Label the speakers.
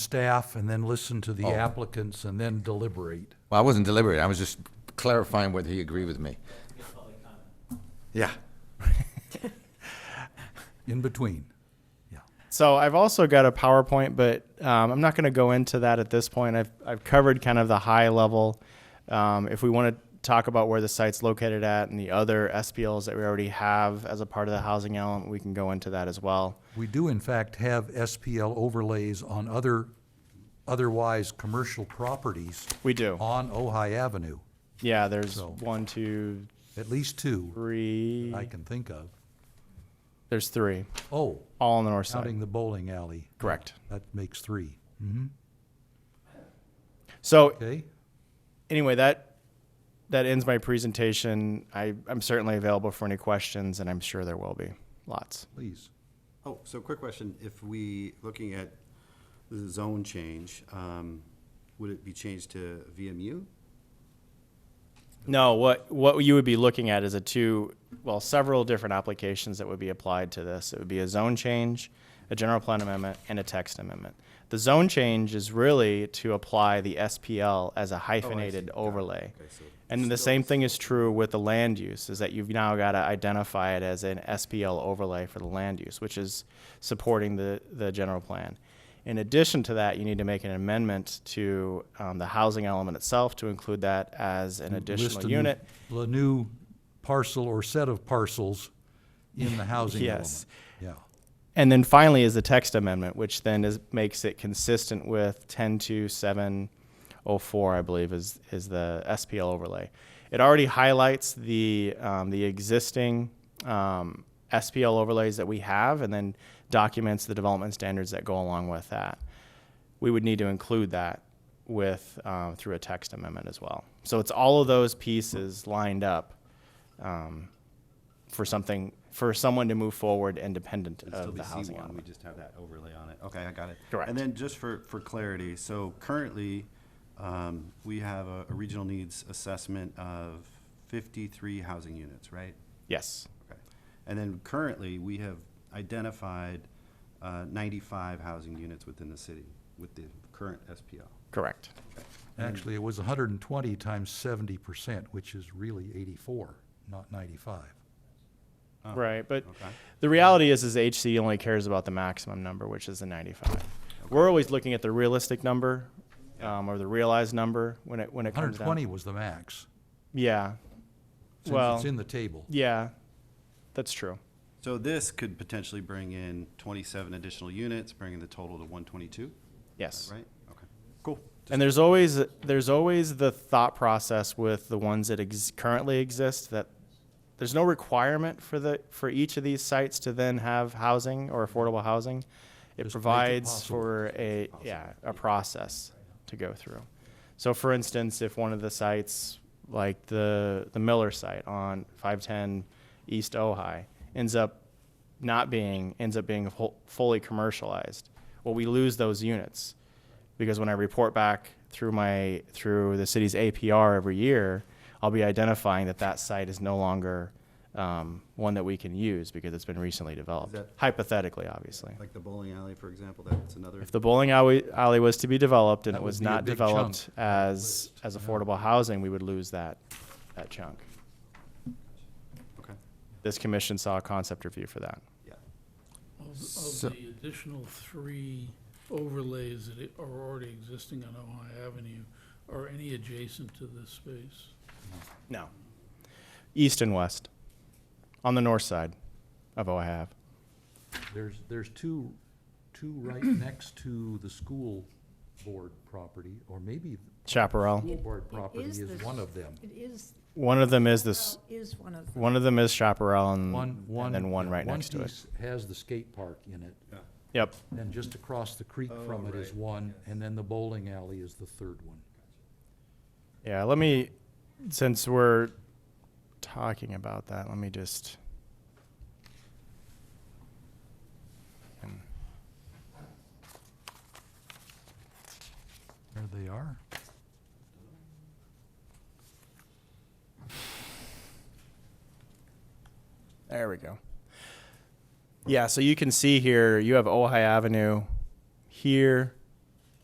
Speaker 1: staff and then listen to the
Speaker 2: Oh.
Speaker 1: applicants and then deliberate.
Speaker 2: Well, I wasn't deliberate. I was just clarifying whether he agreed with me. Yeah.
Speaker 1: In between, yeah.
Speaker 3: So I've also got a PowerPoint, but um, I'm not going to go into that at this point. I've, I've covered kind of the high level. Um, if we want to talk about where the site's located at and the other SPLs that we already have as a part of the housing element, we can go into that as well.
Speaker 1: We do in fact have SPL overlays on other, otherwise commercial properties
Speaker 3: We do.
Speaker 1: on Ojai Avenue,
Speaker 3: Yeah, there's
Speaker 1: So-
Speaker 3: one, two,
Speaker 1: at least two
Speaker 3: three.
Speaker 1: I can think of.
Speaker 3: There's three,
Speaker 1: Oh,
Speaker 3: all on the north side.
Speaker 1: counting the bowling alley,
Speaker 3: Correct.
Speaker 1: that makes three,
Speaker 3: So
Speaker 1: okay?
Speaker 3: anyway, that that ends my presentation. I, I'm certainly available for any questions, and I'm sure there will be lots.
Speaker 1: Please.
Speaker 4: Oh, so quick question, if we, looking at the zone change, um, would it be changed to VMU?
Speaker 3: No, what what you would be looking at is a two, well, several different applications that would be applied to this. It would be a zone change, a general plan amendment, and a text amendment. The zone change is really to apply the SPL
Speaker 4: Oh,
Speaker 3: as a hyphenated overlay.
Speaker 4: Okay, so
Speaker 3: And the
Speaker 4: still-
Speaker 3: same thing is true with the land use, is that you've now got to identify it as an SPL overlay for the land use, which is supporting the, the general plan. In addition to that, you need to make an amendment to um, the housing element itself to include that as an
Speaker 1: List
Speaker 3: additional
Speaker 1: a new-
Speaker 3: unit.
Speaker 1: A new parcel or set of parcels in the housing
Speaker 3: Yes.
Speaker 1: element. Yeah,
Speaker 3: And then finally is the text amendment, which then is, makes it consistent with 102704, I believe, is, is the SPL overlay. It already highlights the, um, the existing um, SPL overlays that we have and then documents the development standards that go along with that. We would need to include that with, um, through a text amendment as well. So it's all of those pieces lined up um, for something for someone to move forward independent
Speaker 4: It'd still
Speaker 3: of
Speaker 4: be
Speaker 3: the housing
Speaker 4: C1, we
Speaker 3: element.
Speaker 4: just have that overlay on it. Okay, I got it.
Speaker 3: Correct.
Speaker 4: And then just for, for clarity, so currently, um, we have a a regional needs assessment of fifty-three housing units, right?
Speaker 3: Yes,
Speaker 4: Okay. And then currently, we have identified uh, ninety-five housing units within the city with the current SPL.
Speaker 3: correct.
Speaker 1: actually, it was hundred and twenty times seventy percent, which is really eighty-four, not ninety-five.
Speaker 4: Oh,
Speaker 3: Right, but
Speaker 4: Okay.
Speaker 3: the reality is, is HC only cares about the maximum number, which is the 95. We're always looking at the realistic number um, or the realized number when it when it comes down.
Speaker 1: 120 was the max,
Speaker 3: Yeah.
Speaker 1: since
Speaker 3: well,
Speaker 1: it's in the table.
Speaker 3: yeah, that's true.
Speaker 4: So this could potentially bring in 27 additional units, bringing the total to 122,
Speaker 3: Yes.
Speaker 4: right? Okay, cool.
Speaker 3: And there's always there's always the thought process with the ones that ex- currently exist that there's no requirement for the for each of these sites to then have housing or affordable housing. It
Speaker 1: Just make it
Speaker 3: provides
Speaker 1: possible.
Speaker 3: for a yeah a process to go through. So, for instance, if one of the sites like the the Miller site on 510 East Ojai ends up not being ends up being whole- fully commercialized, well, we lose those units because when I report back through my through the city's APR every year, I'll be identifying that that site is no longer um, one that we can use because it's been recently developed.
Speaker 4: that-
Speaker 3: Hypothetically, obviously,
Speaker 4: Like the bowling alley, for example, that's another,
Speaker 3: if the bowling alley, alley was to be developed and
Speaker 1: That
Speaker 3: it
Speaker 1: would
Speaker 3: was
Speaker 1: be a
Speaker 3: not
Speaker 1: big chunk
Speaker 3: developed
Speaker 1: on that
Speaker 3: as
Speaker 1: list,
Speaker 3: as
Speaker 1: yeah.
Speaker 3: affordable housing, we would lose that that chunk.
Speaker 4: okay,
Speaker 3: This commission saw a concept review for that.
Speaker 4: yeah.
Speaker 5: Of
Speaker 2: So-
Speaker 5: of the additional three overlays that i- are already existing on Ojai Avenue, are any adjacent to this space?
Speaker 3: No. East and west, on the north side of Ohio.
Speaker 1: There's, there's two, two right next to the school board property, or maybe
Speaker 3: Chaparral.
Speaker 1: school board
Speaker 6: It
Speaker 1: property
Speaker 6: is
Speaker 1: is
Speaker 6: the-
Speaker 1: one of them.
Speaker 6: It is,
Speaker 3: One of them is this.
Speaker 6: well, is one of them.
Speaker 3: One of them is Chaparral Mm, and,
Speaker 1: One, one.
Speaker 3: and then one right
Speaker 1: one
Speaker 3: next to it.
Speaker 1: piece Has the skate park in it,
Speaker 3: Yep.
Speaker 1: and just across the creek from it is one, and then the bowling alley is the third one.
Speaker 3: Yeah, let me, since we're talking about that, let me just. and-
Speaker 1: There they are.
Speaker 3: There we go. Yeah, so you can see here, you have Ojai Avenue here,